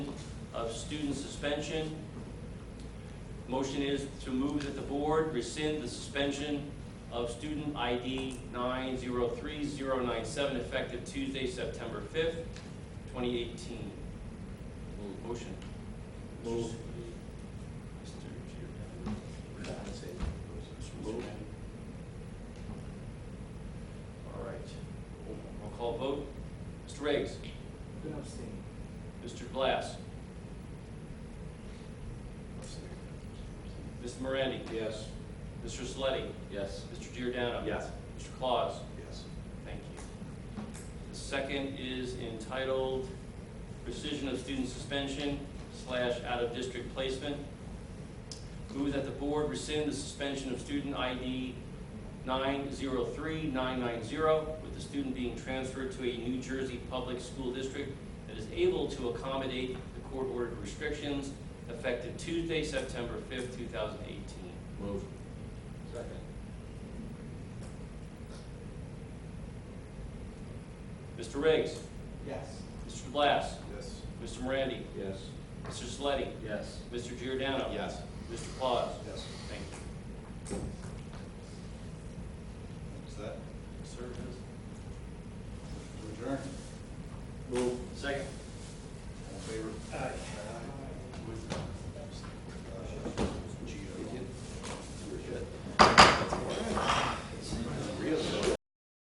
of student suspension. Motion is to move that the board rescind the suspension of student ID 903097 effective Tuesday, September 5th, 2018. Motion. Move. Mr. Giordano. Move. All right. Roll call vote. Mr. Riggs? Good abstain. Mr. Glass? Mr. Morandi? Yes. Mr. Sleddy? Yes. Mr. Giordano? Yes. Mr. Claus? Yes. Thank you. The second is entitled Precision of Student Suspension slash Out of District Placement. Move that the board rescind the suspension of student ID 903990 with the student being transferred to a New Jersey public school district that is able to accommodate the court-ordered restrictions effective Tuesday, September 5th, 2018. Move. Second. Mr. Riggs, Yes. Mr. Blas, Yes. Mr. Morandi, Yes. Mr. Sleddy, Yes. Mr. Giordano. Yes. Mr. Claus. Yes. Thank you.